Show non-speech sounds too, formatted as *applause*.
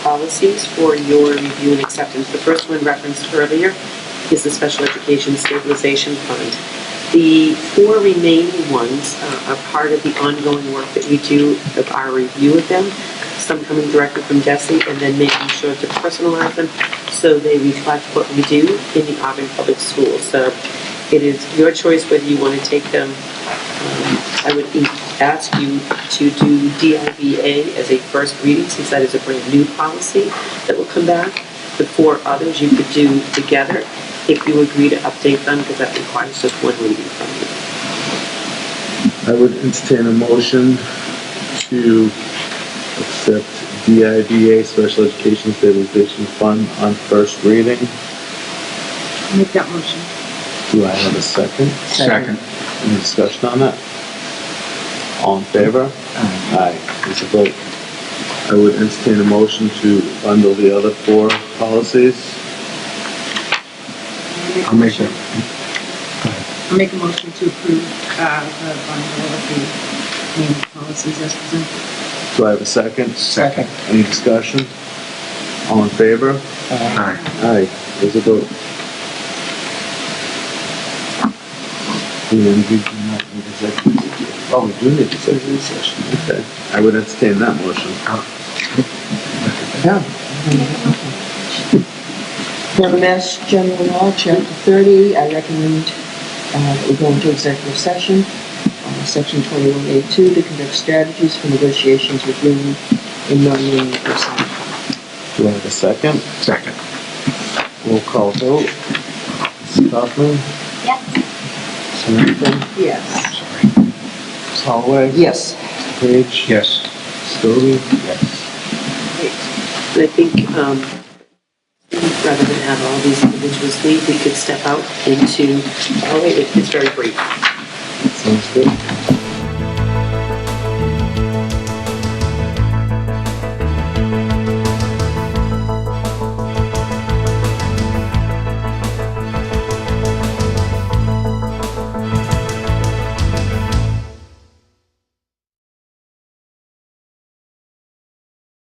policies for your review and acceptance. The first one referenced earlier is the Special Education Stabilization Fund. The four remaining ones uh, are part of the ongoing work that we do of our review of them, some coming directly from Desi, and then making sure to personalize them so they reflect what we do in the Auburn Public Schools. So it is your choice whether you want to take them. Um, I would e- ask you to do DIBA as a first reading, since that is a brand-new policy that will come back. The four others you could do together if you agree to update them, because that requires just one reading from you. I would entertain a motion to accept DIBA Special Education Stabilization Fund on first reading. Make that motion. Do I have a second? Second. Any discussion on that? All in favor? Aye. It's a vote. I would entertain a motion to bundle the other four policies. I'll make that. I'll make a motion to approve, uh, the bundle of the payment policies as presented. Do I have a second? Second. Any discussion? All in favor? Aye. Aye, there's a vote. And we do not need executive session. Oh, we do need executive session, okay. I would entertain that motion. *laughs* Yeah. Now, Mass General Law, Chapter 30, I recommend uh, that we go into executive session, uh, Section 21A2, to conduct strategies for negotiations with union and non-union personnel. Do I have a second? Second. We'll call vote. Mrs. Kaufman? Yes. Samantha? Yes. Holloway? Yes. Page? Yes. Stoli? Yes. And I think, um, rather than have all these individuals leave, we could step out into, oh wait, it's very brief. Sounds good.